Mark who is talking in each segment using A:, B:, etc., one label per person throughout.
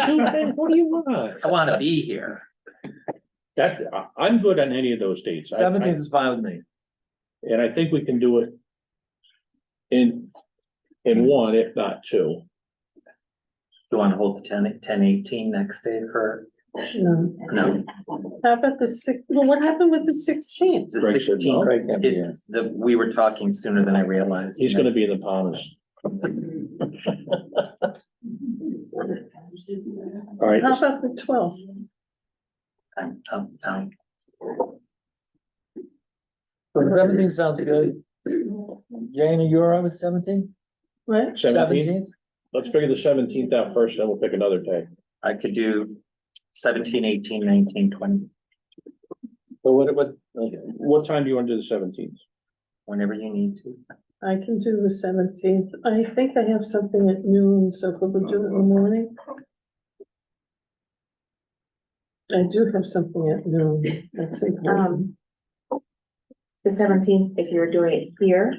A: Stupid, what do you want?
B: I wanna be here.
A: That, I, I'm good on any of those dates. I- I-
C: Seventeenth is fine with me.
A: And I think we can do it. In, in one, if not two.
B: You wanna hold the ten, ten eighteen next day for,
D: No.
B: no,
D: How about the six, well, what happened with the sixteenth?
B: the
A: Greg said no.
B: sixteen.
C: Craig can't be here.
B: The, we were talking sooner than I realized.
A: He's gonna be in the Bahamas. All right,
D: How about the twelfth?
B: I'm, I'm, I'm-
C: Seventeen sounds good. Jane, are you all right with seventeen?
D: Right?
A: seventeenth, let's figure the seventeenth out first, then we'll pick another day.
B: I could do seventeen, eighteen, nineteen, twenty,
A: So what, what, what time do you want to do the seventeenth?
B: whenever you need to.
D: I can do the seventeenth. I think I have something at noon, so could we do it in the morning? I do have something at noon. That's important.
E: Um. The seventeenth, if you're doing it here,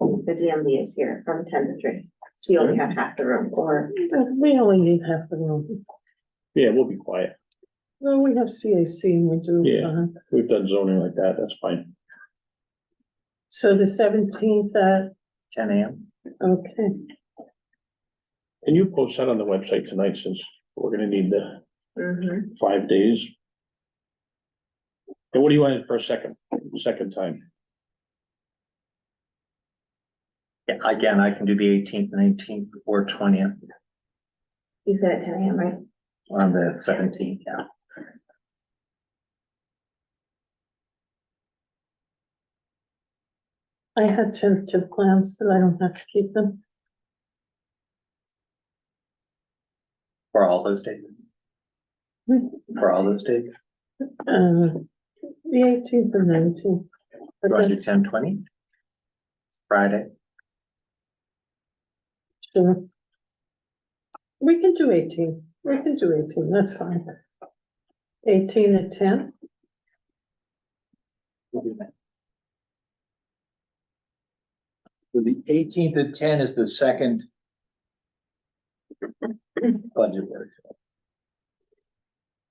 E: the DMV is here from ten to three, so you only have half the room, or
D: We only need half the room.
A: Yeah, we'll be quiet.
D: No, we have CAC and we do.
A: Yeah.
D: uh,
A: We've done zoning like that, that's fine.
D: So the seventeenth, uh,
B: Ten AM?
D: okay.
A: Can you post that on the website tonight since we're gonna need the
E: Mhm.
A: five days? And what do you want for a second, second time?
B: Yeah, again, I can do the eighteenth, nineteenth, or twentieth
E: you said at ten AM, right?
B: on the seventeenth, yeah.
D: I had tentative plans, but I don't have to keep them.
B: For all those days? For all those days?
D: Uh, the eighteenth and nineteenth.
B: Do you want to do ten, twenty? Friday?
D: Sure. We can do eighteen, we can do eighteen, that's fine. Eighteen at ten,
B: We'll do that.
C: So The eighteenth at ten is the second. Budget workshop.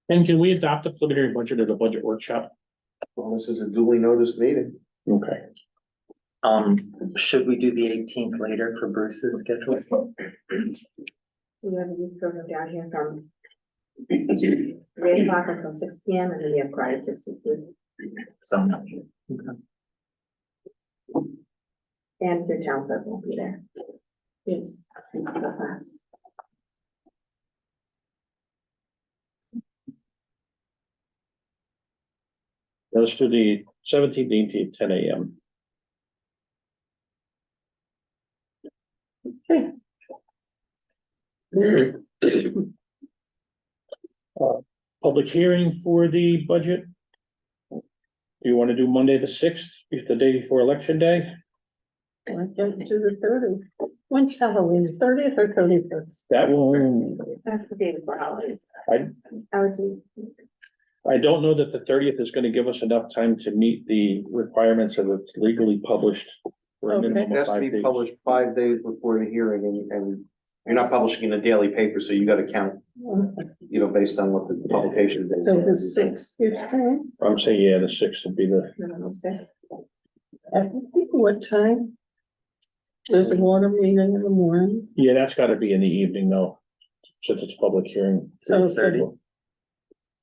A: And can we adopt the preliminary budget at the budget workshop?
F: Well, this is a duly noticed meeting.
A: Okay.
B: Um, should we do the eighteenth later for Bruce's schedule?
E: We have a youth program down here from three o'clock until six P M, and then you have Friday six to two,
B: So, no.
E: and your town clerk will be there. Yes. Same for the class.
A: Let's do the seventeenth, eighteenth, ten AM. Uh, Public hearing for the budget. Do you want to do Monday the sixth, if the day before election day?
D: I can do the thirty. When's Halloween, thirtieth or thirty-first?
A: That will,
E: That's the day before holiday.
A: I-
E: I would do,
A: I don't know that the thirtieth is going to give us enough time to meet the requirements of it's legally published. for a
D: Okay.
A: minimum
F: It
A: of
F: has to
A: five
F: be
A: days.
F: published five days before the hearing and, and you're not publishing in a daily paper, so you gotta count, you know, based on what the publication date.
D: So the
F: is.
D: sixth, you time,
A: I'm saying, yeah, the sixth would be the,
E: no, no, six.
D: what time? There's a water meeting in the morning,
A: yeah, that's got to be in the evening though, since it's public hearing.
D: so.
B: 6:30.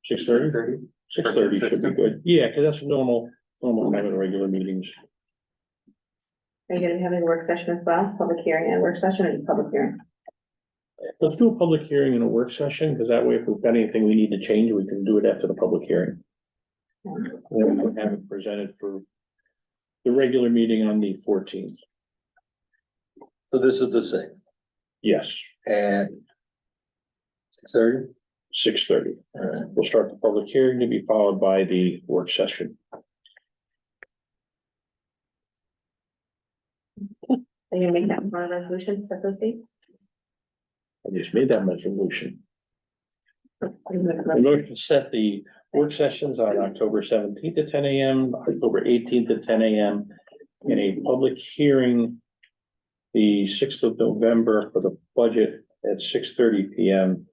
A: Six thirty?
B: Six thirty?
A: Six thirty should be good. Yeah, because that's normal, normal time of the regular meetings.
E: Are you gonna have a work session as well, public hearing and work session, or just public hearing?
A: Let's do a public hearing and a work session, because that way if we've got anything we need to change, we can do it after the public hearing.
E: Um,
A: Then we can have it presented for the regular meeting on the fourteenth.
C: So this is the sixth
A: Yes,
C: at six thirty?
A: six thirty. We'll start the public hearing to be followed by the work session.
E: Are you gonna make that part of the resolution, set those dates?
A: I just made that resolution.
E: Or you
A: The
E: make-
A: motion to set the work sessions on October seventeenth at ten AM, October eighteenth at ten AM. In a public hearing. The sixth of November for the budget at six thirty PM.